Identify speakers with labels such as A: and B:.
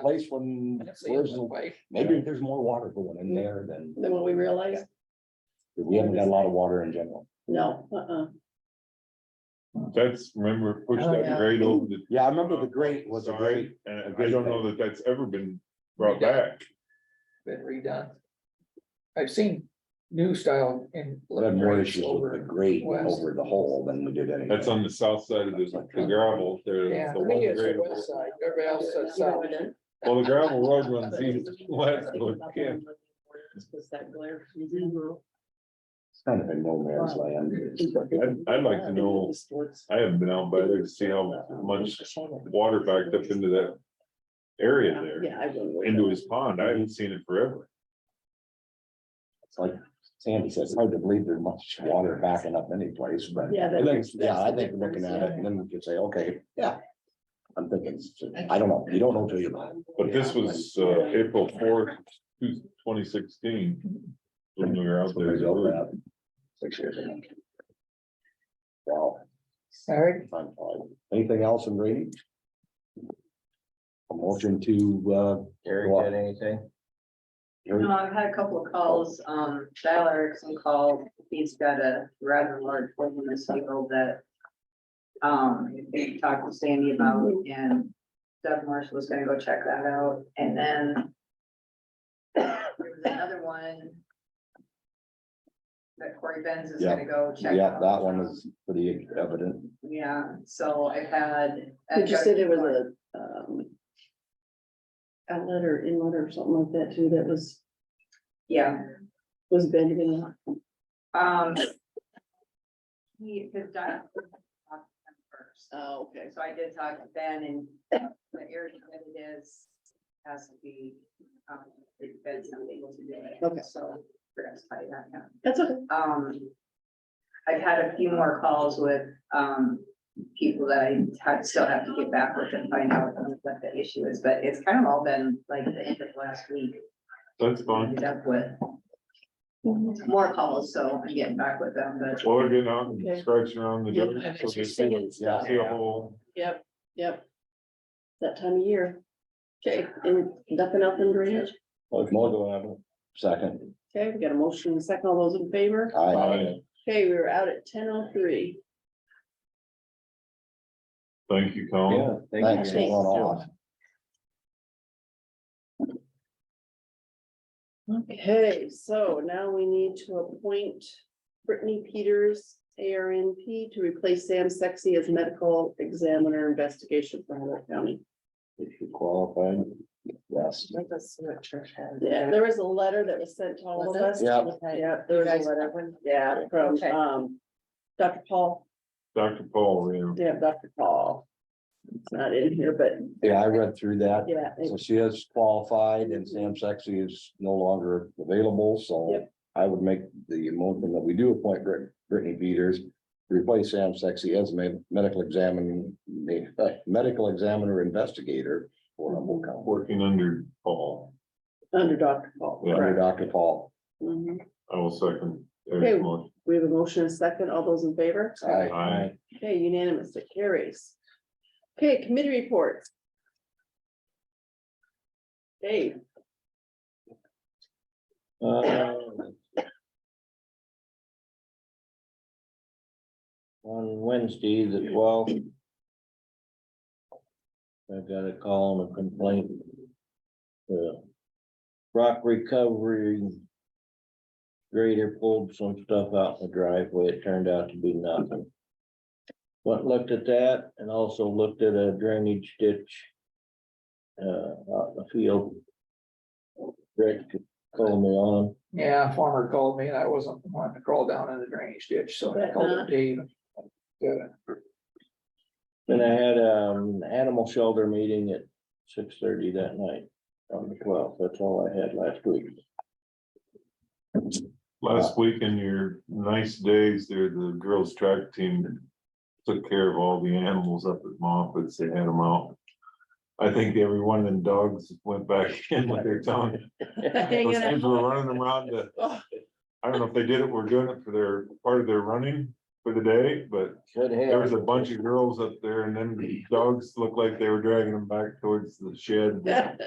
A: place when
B: I don't see it
A: where's
B: that
A: the,
B: way.
A: maybe there's more water going in there than,
C: Then what we realized,
A: we haven't got a lot of water in general.
C: no, uh-uh,
D: That's, remember, push
A: Oh,
D: that
C: yeah.
D: grade over the.
A: Yeah, I remember the grate was a
D: side,
A: great, a
D: And I
A: great
D: don't know that that's ever been brought back.
B: Been redone. I've seen new style in.
A: we had more
B: grades
A: issues with the
B: over-
A: grate
B: west.
A: over the hole than we did anything.
D: That's on the south side of the the gravel,
B: Yeah,
D: there's
B: I
D: the
B: think
D: one
B: it's
D: grade.
B: the west side, everybody else says south.
D: Well, the gravel road runs
C: But
D: east,
C: it's-
D: west,
C: think
D: but
C: about that
D: yeah,
C: one with the words, Was that glare? Mhm.
A: It's kind of in no man's land.
D: I'd, I'd like to know, I haven't been out by there to see how much water backed up into that area there,
C: Yeah, I will.
D: into his pond. I haven't seen it forever.
A: It's like Sandy says, hard to believe there's much water backing up anyplace, but.
C: Yeah,
A: I
C: that-
A: think, yeah, I
C: that's the
A: think looking at it,
C: difference,
A: and then we could say, okay, yeah. I'm thinking, I don't know, you don't know till you know.
D: But this was, uh, April fourth, twenty sixteen. When we were out
A: Somebody built
D: there.
A: that Six years ago. Wow.
B: All right,
A: I'm fine. Anything else in drainage? A motion to, uh,
E: Gary
A: Well-
E: got anything?
A: hear-
F: No, I've had a couple of calls, um, Dial Erickson called, he's got a rather large one in this field that. Um, he talked to Sandy about,
C: Mhm.
F: and Doug Marshall was gonna go check that out, and then. There was another one. That Corey Benz is gonna go check.
A: yeah,
F: out.
A: that one is pretty evident.
F: Yeah, so I've had.
C: But you said there was a, um. Outlet or inlet or something like that too, that was,
F: Yeah,
C: was bending.
F: um. He, his dial. First.
C: Oh, okay.
F: So I did talk to Ben and the area that it is has to be, um, it's been something to do it.
C: Okay.
F: So we're gonna study that now.
C: That's okay.
F: Um, I've had a few more calls with, um, people that I ha- still have to get back with and find out what the issue is, but it's kind of all been like the end of last week.
D: That's
F: I
D: fine.
F: Ended up with more calls, so I'm getting back with them, but
D: Well, they're getting out and
C: Okay.
D: scratching around the
C: Yeah,
D: dirt.
C: and
D: so
C: it's
D: they
C: just
D: see-
C: singing stuff.
D: See a hole.
C: Yep, yep. That time of year. Okay, and nothing else in drainage?
A: Well, more than that. Second.
C: Okay, we got a motion, and a second, all those in favor?
A: Aye.
C: Okay, we were out at ten oh three.
D: Thank you,
E: Yeah,
D: Colin.
E: thank you.
A: Thanks for going off.
C: Okay, so now we need to appoint Brittany Peters, ARNP, to replace Sam Sexy as medical examiner investigation for Humboldt County.
A: If you qualified, yes.
G: Let us see what church has.
C: Yeah, there was a letter that was sent to all of us.
A: Yeah.
C: Yeah, there was a letter, yeah, from,
G: Okay.
C: um, Dr. Paul,
D: Dr. Paul, yeah.
C: yeah, Dr. Paul. It's not in here, but
A: Yeah, I read through that.
C: yeah, it-
A: So she is qualified and Sam Sexy is no longer available, so
C: Yep.
A: I would make the motion that we do appoint Brit- Brittany Peters. to Replace Sam Sexy as med- medical examine, uh, medical examiner investigator for Humboldt County.
D: working under Paul.
C: under Dr. Paul.
D: Yeah.
A: Under
C: correct.
A: Dr. Paul.
C: Mhm.
D: I will second.
C: Okay.
D: Eric's motion.
C: We have a motion and a second, all those in favor?
A: Aye.
D: Aye.
C: Okay, unanimous, it carries. Okay, committee reports. Dave,
E: Um, On Wednesday, the twelfth. I got a call and a complaint. The Rock recovery. Grader pulled some stuff out in the driveway. It turned out to be nothing. Went and looked at that and also looked at a drainage ditch. Uh, out in the field. Rick called me on.
B: yeah, farmer called me and I wasn't wanting to crawl down in the drainage ditch, so I
C: But,
B: called
C: uh,
B: up Dave. Yeah,
E: Then I had um animal shelter meeting at six thirty that night on the twelfth. That's all I had last week.
D: Last week in your nice days there, the girls track team took care of all the animals up at Moffett's. They had them out. I think every one of them dogs went back in with their tongue.
C: hanging
D: Those
C: out.
D: things were running them around the,
C: Oh.
D: I don't know if they did it, we're doing it for their, part of their running for the day, but
E: Good
D: There was
E: hair.
D: a bunch of girls up there and then the dogs looked like they were dragging them back towards the shed.